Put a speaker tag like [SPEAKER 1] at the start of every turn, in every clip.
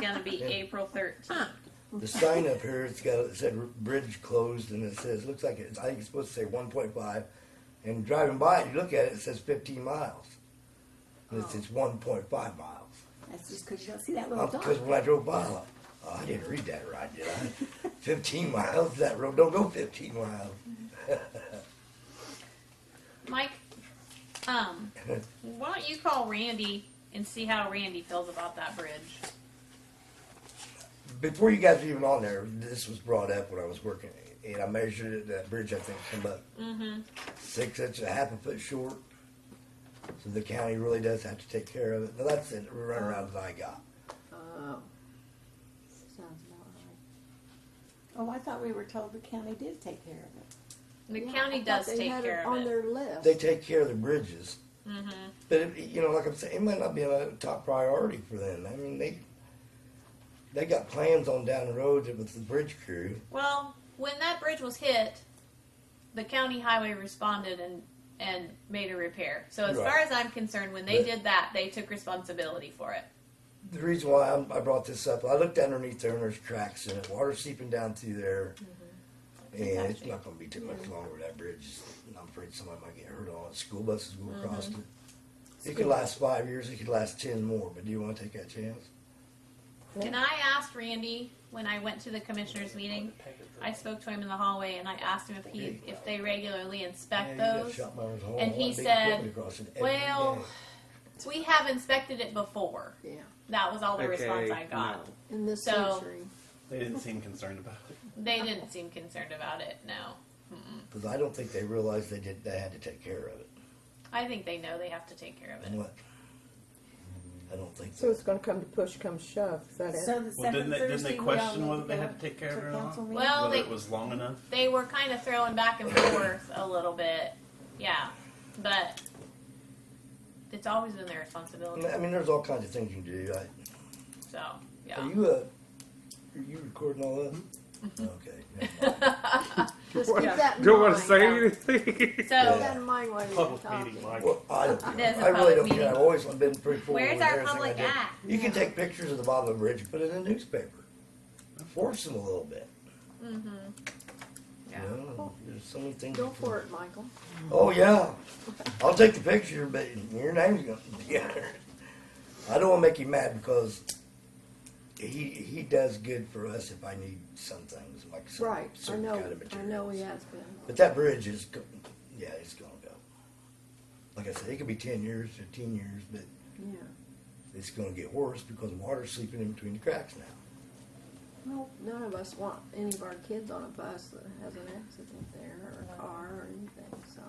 [SPEAKER 1] gonna be April thirteenth.
[SPEAKER 2] The sign up here, it's got, it said bridge closed and it says, looks like it's, I think it's supposed to say one point five. And driving by it, you look at it, it says fifteen miles. And it says one point five miles.
[SPEAKER 3] That's just because you don't see that little dot.
[SPEAKER 2] Because when I drove by, I'm like, oh, I didn't read that right, did I? Fifteen miles, that road don't go fifteen miles.
[SPEAKER 1] Mike, um, why don't you call Randy and see how Randy feels about that bridge?
[SPEAKER 2] Before you guys were even on there, this was brought up when I was working, and I measured it. That bridge, I think, came up
[SPEAKER 3] Mm-hmm.
[SPEAKER 2] six inches, a half a foot short. So the county really does have to take care of it. Now that's it, run around as I got.
[SPEAKER 3] Oh. Sounds about right. Oh, I thought we were told the county did take care of it.
[SPEAKER 1] The
[SPEAKER 3] Yeah, I
[SPEAKER 1] county
[SPEAKER 3] thought
[SPEAKER 1] does
[SPEAKER 3] they
[SPEAKER 1] take
[SPEAKER 3] had
[SPEAKER 1] care
[SPEAKER 3] On
[SPEAKER 1] of it.
[SPEAKER 3] their list.
[SPEAKER 2] They take care of the bridges,
[SPEAKER 1] Mm-hmm.
[SPEAKER 2] but it, you know, like I'm saying, it might not be a top priority for them. I mean, they they got plans on down the road with the bridge crew.
[SPEAKER 1] Well, when that bridge was hit, the county highway responded and and made a repair. So as
[SPEAKER 2] Right.
[SPEAKER 1] far as I'm concerned, when they
[SPEAKER 2] But-
[SPEAKER 1] did that, they took responsibility for it.
[SPEAKER 2] The reason why I'm, I brought this up, I looked underneath there and there's cracks in it. Water seeping down through there.
[SPEAKER 1] Mm-hmm.
[SPEAKER 2] And it's not going to be too much longer. That bridge, is- I'm afraid somebody might get hurt on it. School buses will cross
[SPEAKER 1] Mm-hmm.
[SPEAKER 2] it. It could last five years. It could last ten more. But do you want to take that chance?
[SPEAKER 1] And I asked Randy when I went to the commissioners meeting. I spoke to him in the hallway and I asked him if he if they regularly inspect
[SPEAKER 2] Yeah, you got
[SPEAKER 1] those.
[SPEAKER 2] shot by his whole
[SPEAKER 1] And he
[SPEAKER 2] lot of big
[SPEAKER 1] said,
[SPEAKER 2] equipment across it every
[SPEAKER 1] well,
[SPEAKER 2] day.
[SPEAKER 1] We have inspected it before.
[SPEAKER 3] Yeah,
[SPEAKER 1] That was all the response I got.
[SPEAKER 4] no.
[SPEAKER 3] in this
[SPEAKER 1] So-
[SPEAKER 3] century.
[SPEAKER 4] They didn't seem concerned about it.
[SPEAKER 1] They didn't seem concerned about it. No,
[SPEAKER 2] 'Cause I don't think they realized they did. They had to take care of it.
[SPEAKER 1] I think they know they have to take care of
[SPEAKER 2] And
[SPEAKER 1] it.
[SPEAKER 2] what? I don't think
[SPEAKER 5] So
[SPEAKER 2] so.
[SPEAKER 5] it's gonna come to push, come shove, is that it?
[SPEAKER 3] So the
[SPEAKER 4] Well, didn't
[SPEAKER 3] second
[SPEAKER 4] they, didn't
[SPEAKER 3] Thursday,
[SPEAKER 4] they
[SPEAKER 3] we all
[SPEAKER 4] question
[SPEAKER 3] need
[SPEAKER 4] whether they
[SPEAKER 3] go
[SPEAKER 4] had to take care of
[SPEAKER 3] to
[SPEAKER 4] it or not?
[SPEAKER 3] council meeting?
[SPEAKER 1] Well,
[SPEAKER 4] whether
[SPEAKER 1] they-
[SPEAKER 4] it was long enough?
[SPEAKER 1] They were kind of throwing back and forth a little bit. Yeah, but it's always been their responsibility.
[SPEAKER 2] I mean, there's all kinds of things you can do. I,
[SPEAKER 1] So yeah.
[SPEAKER 2] Are you uh, are you recording all that?
[SPEAKER 1] Mm-hmm.
[SPEAKER 2] Okay. never mind.
[SPEAKER 3] Just keep that in
[SPEAKER 6] Don't want
[SPEAKER 3] mind.
[SPEAKER 6] to say anything.
[SPEAKER 1] so
[SPEAKER 3] Keep that in mind while you're
[SPEAKER 4] Public meeting,
[SPEAKER 3] talking.
[SPEAKER 4] Mike.
[SPEAKER 2] Well, I don't care.
[SPEAKER 1] There's a
[SPEAKER 2] I really don't
[SPEAKER 1] public
[SPEAKER 2] care.
[SPEAKER 1] meeting.
[SPEAKER 2] I've always been pretty forward.
[SPEAKER 1] Where's
[SPEAKER 2] with
[SPEAKER 1] our
[SPEAKER 2] everything I
[SPEAKER 1] public
[SPEAKER 2] do.
[SPEAKER 1] at?
[SPEAKER 2] You can take pictures of the bottom of the bridge, and put it in the newspaper, force them a little bit.
[SPEAKER 1] yeah.
[SPEAKER 2] You know, there's so many things.
[SPEAKER 3] Go
[SPEAKER 2] you can-
[SPEAKER 3] for it, Michael.
[SPEAKER 2] Oh yeah, I'll take the picture, but your name's gonna be on it. I don't want to make him mad because he he does good for us if I need some things like some
[SPEAKER 3] Right, I
[SPEAKER 2] certain kind
[SPEAKER 3] know,
[SPEAKER 2] of
[SPEAKER 3] I
[SPEAKER 2] materials.
[SPEAKER 3] know he has been.
[SPEAKER 2] But that bridge is, go- yeah, it's gonna go. Like I said, it could be ten years, fifteen years, but
[SPEAKER 3] Yeah.
[SPEAKER 2] it's gonna get worse because water's seeping in between the cracks now.
[SPEAKER 3] Well, none of us want any of our kids on a bus that has an accident there or a car or anything, so.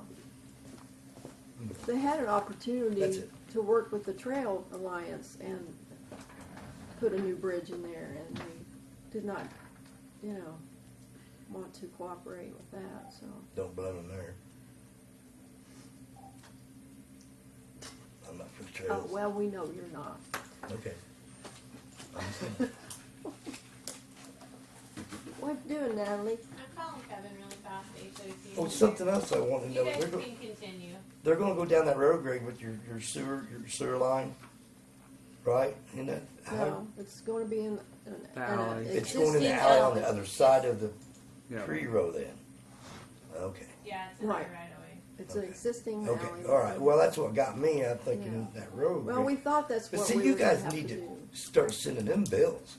[SPEAKER 3] If They had an
[SPEAKER 2] That's
[SPEAKER 3] opportunity
[SPEAKER 2] it.
[SPEAKER 3] to work with the Trail Alliance and put a new bridge in there and they did not, you know, want to cooperate with that, so.
[SPEAKER 2] Don't blame them there. I'm not for the
[SPEAKER 3] Oh,
[SPEAKER 2] trails.
[SPEAKER 3] well, we know you're not.
[SPEAKER 2] Okay.
[SPEAKER 3] What you doing, Natalie?
[SPEAKER 1] I'm calling Kevin really fast.
[SPEAKER 2] Oh, something else I want to know. They're, go-
[SPEAKER 1] continue.
[SPEAKER 2] they're gonna go down that road, Greg, with your, your sewer, your sewer line, right? Isn't that how?
[SPEAKER 3] No, it's gonna be in, in, in a
[SPEAKER 6] Alley.
[SPEAKER 2] It's going in
[SPEAKER 3] existing
[SPEAKER 2] the alley on
[SPEAKER 3] alley.
[SPEAKER 2] the other side of the
[SPEAKER 6] Yeah.
[SPEAKER 2] tree row then. Okay.
[SPEAKER 1] Yeah, it's
[SPEAKER 3] in there Right.
[SPEAKER 1] away.
[SPEAKER 3] It's an existing alley.
[SPEAKER 2] Okay, all right. Well, that's what got me. I'm thinking
[SPEAKER 3] Yeah.
[SPEAKER 2] that road.
[SPEAKER 3] Well, we thought that's
[SPEAKER 2] but
[SPEAKER 3] what
[SPEAKER 2] see,
[SPEAKER 3] we
[SPEAKER 2] you
[SPEAKER 3] were gonna
[SPEAKER 2] guys
[SPEAKER 3] have
[SPEAKER 2] need to,
[SPEAKER 3] do.
[SPEAKER 2] start sending them bills.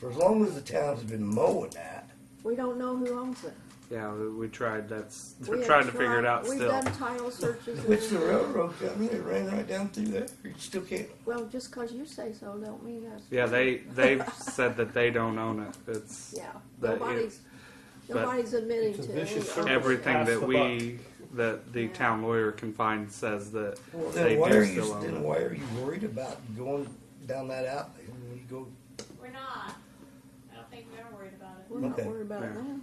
[SPEAKER 2] For as long as the town's been mowing that,
[SPEAKER 3] We don't know who owns it.
[SPEAKER 6] Yeah, we, we tried. That's
[SPEAKER 3] We
[SPEAKER 6] we're
[SPEAKER 3] have
[SPEAKER 6] trying to figure it out
[SPEAKER 3] We've
[SPEAKER 6] still.
[SPEAKER 3] done title searches. and
[SPEAKER 2] which the
[SPEAKER 3] everything.
[SPEAKER 2] railroad company it ran right down through there. You still can't.
[SPEAKER 3] Well, just 'cause you say so, don't mean that's.
[SPEAKER 6] Yeah, they they've said that they don't own it. It's
[SPEAKER 3] Yeah,
[SPEAKER 6] But it-
[SPEAKER 3] nobody's,
[SPEAKER 6] but
[SPEAKER 3] nobody's admitting
[SPEAKER 4] It's a
[SPEAKER 3] to.
[SPEAKER 4] vicious
[SPEAKER 3] any
[SPEAKER 4] circle.
[SPEAKER 3] ownership.
[SPEAKER 6] everything
[SPEAKER 4] Pass
[SPEAKER 6] that
[SPEAKER 4] the
[SPEAKER 6] we that the
[SPEAKER 3] Yeah.
[SPEAKER 6] town lawyer can find says that
[SPEAKER 2] Well,
[SPEAKER 6] they
[SPEAKER 2] then why are
[SPEAKER 6] do
[SPEAKER 2] you?
[SPEAKER 6] still own
[SPEAKER 2] Then
[SPEAKER 6] it.
[SPEAKER 2] why are you worried about going down that alley when you go?
[SPEAKER 1] We're not. I don't think we're worried about it.
[SPEAKER 3] We're not
[SPEAKER 2] Okay.
[SPEAKER 3] worried about it
[SPEAKER 6] Yeah.
[SPEAKER 3] now.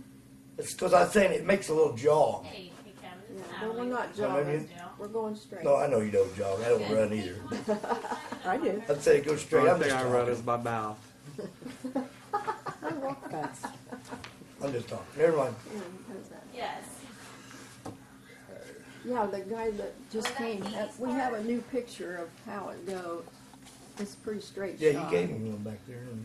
[SPEAKER 2] It's because I'm saying it makes a little jog.
[SPEAKER 1] Hey, hey, Kevin.
[SPEAKER 3] Yeah,
[SPEAKER 1] it's
[SPEAKER 3] no,
[SPEAKER 1] Natalie.
[SPEAKER 3] we're not
[SPEAKER 2] Well,
[SPEAKER 3] jogging.
[SPEAKER 2] maybe-
[SPEAKER 3] We're going straight.
[SPEAKER 2] No, I know you don't jog. I don't run either.
[SPEAKER 5] I do.
[SPEAKER 2] I'd say go
[SPEAKER 6] The
[SPEAKER 2] straight. I'm
[SPEAKER 6] only
[SPEAKER 2] just
[SPEAKER 6] thing I wrote is
[SPEAKER 2] talking.
[SPEAKER 6] my mouth.
[SPEAKER 3] I walk fast.
[SPEAKER 2] I'm just talking. Never mind.
[SPEAKER 3] Yeah, he does that.
[SPEAKER 1] Yes.
[SPEAKER 3] Yeah, the guy that just
[SPEAKER 1] Oh, that
[SPEAKER 3] came,
[SPEAKER 1] he's
[SPEAKER 3] that- we have a new picture of how it go, It's pretty straight
[SPEAKER 2] Yeah,
[SPEAKER 3] shot.
[SPEAKER 2] you gave me one back there. didn't you?